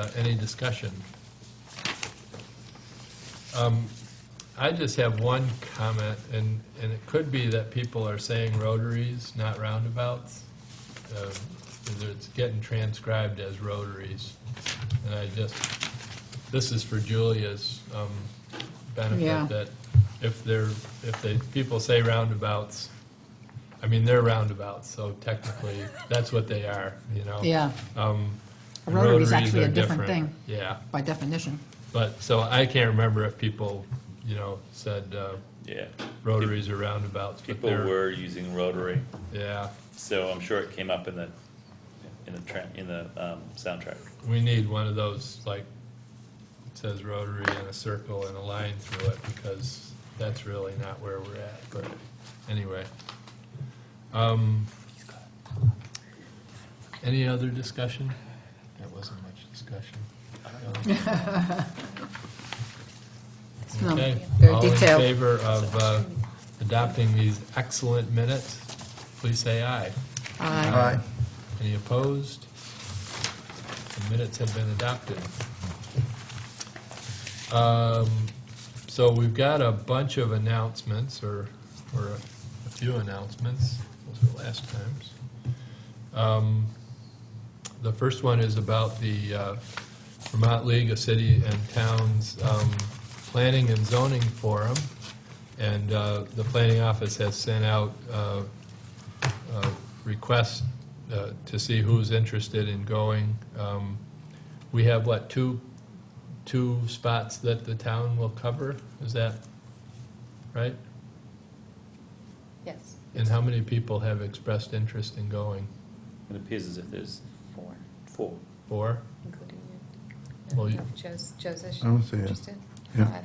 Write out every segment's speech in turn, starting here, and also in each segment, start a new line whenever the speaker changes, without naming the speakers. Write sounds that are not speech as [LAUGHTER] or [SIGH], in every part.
Uh, Any discussion? Um, I just have one comment, and, and it could be that people are saying rotaries, not roundabouts. Um, 'cause It's getting transcribed as rotaries. And I just, this is for Julia's um,
Yeah.
benefit, that if they're, if they, people say roundabouts, I mean, they're roundabouts, so technically, that's what they are, you know?
Yeah,
Um,
A rotary
rotaries
is actually
are
a different thing.
Yeah,
by definition.
but, so I can't remember if people, you know, said uh,
Yeah,
rotaries or roundabouts, but
people
they're,
were using rotary,
yeah,
so I'm sure it came up in the, in the tra- in the, um, soundtrack.
we need one of those, like, it says rotary and a circle and a line through it, because that's really not where we're at, but anyway. Um, Any other discussion? That wasn't much
[LAUGHS]
discussion.
No,
Okay.
They're
All in
detailed.
favor of uh, adopting these excellent minutes, please say aye.
Aye.
Aye. Any opposed? The minutes have been adopted. Um, So we've got a bunch of announcements, or, or a few announcements, those were last times. Um, The first one is about the uh, Vermont League of City and Towns um, Planning and Zoning Forum, and uh, the planning office has sent out uh, uh, request uh, to see who's interested in going. Um, We have, what, two, two spots that the town will cover? Is that right?
Yes,
And how many people have expressed interest in going?
It appears as if there's
four,
four.
Four?
including you. I
Well,
don't
you-
know if Joe's, Joe's
I would say, Oh, yeah.
interested.
Yeah.
Five.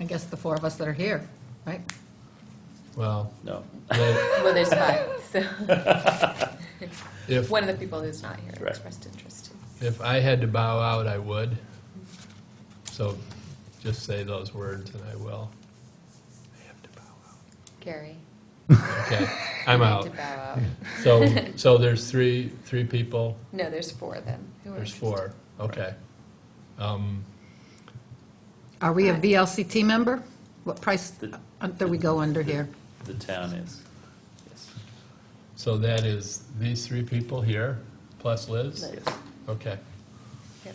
I guess the four of us that are here, right?
Well,
No,
they-
Well, there's five, so [LAUGHS]
if,
one of the people who's not here
Right.
expressed interest.
if I had to bow out, I would. So just say those words and I will. I have to bow
Gary.
out. Okay, I'm
you need
out.
to bow out.
So, so there's three, three people
No, there's four then. who are
There's
interested.
four, okay. Um,
Are we a VLCT member? What price
The-
uh, do we go under here?
the town is, yes,
So that is these three people here, plus Liz?
Liz.
yes.
Okay,
Yep.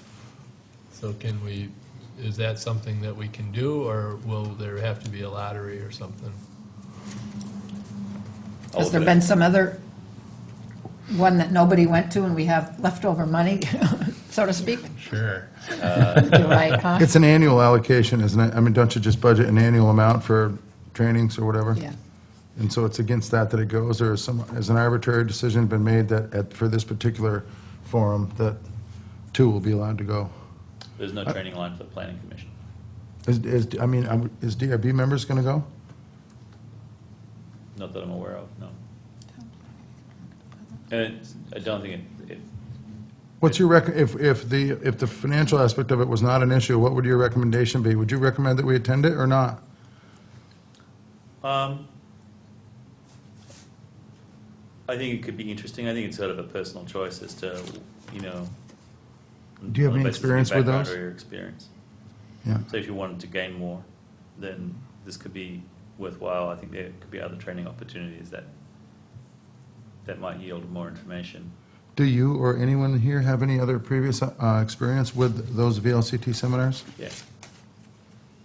so can we, is that something that we can do, or will there have to be a lottery or something?
All
Has
of
there
it.
been some other one that nobody went to and we have leftover money, [LAUGHS] so to speak?
Sure.
You're [LAUGHS] right, huh?
It's an annual allocation, isn't it? I mean, don't you just budget an annual amount for trainings or whatever?
Yeah.
And so it's against that that it goes, or is some, has an arbitrary decision been made that, at, for this particular forum, that two will be allowed to go?
There's
Uh,
no training line for the planning commission.
Is, is, I mean, I'm- is DRB members gonna go?
Not that I'm aware of, no. And it's- I don't think it, it,
What's your rec, if, if the, if the financial aspect of it was not an issue, what would your recommendation be? Would you recommend that we attend it or not?
um, I think it could be interesting. I think it's sort of a personal choice as to, you know.
Do you have
on the
any
basis of your
experience with
background
those?
Or your experience.
Yeah.
So if you wanted to gain more, then this could be worthwhile. I think there could be other training opportunities that, that might yield more information.
Do you or anyone here have any other previous, uh, experience with those VLCT seminars?
Yeah,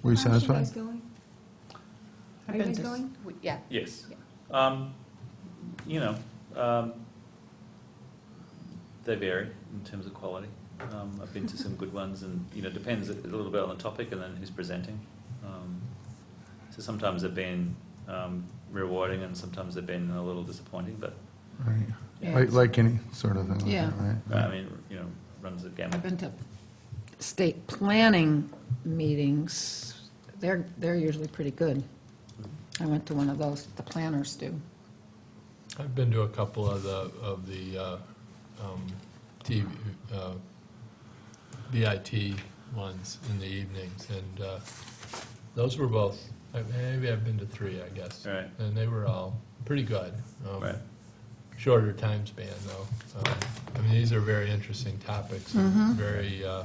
Were you
Aren't
satisfied?
guys going?
I've
Are you
been
guys
to-
going?
We- Yeah,
yes. Um, you know, um, they vary in terms of quality. Um, I've been to some good ones and, you know, depends a little bit on the topic and then who's presenting. Um, so sometimes they've been, um, rewarding and sometimes they've been a little disappointing, but,
Right.
Yeah.
Like, like any sort of thing like
Yeah.
that, right?
I mean, you know, runs the gamut.
I've been to state planning meetings. They're, they're usually pretty good. I went to one of those, the planners do.
I've been to a couple of the, of the, uh, um, TV, uh, BIT ones in the evenings, and, uh, those were both, I- maybe I've been to three, I guess.
Right.
And they were all pretty good. um,
Right.
shorter time span, though. Um, I mean, these are very interesting topics, and very, uh,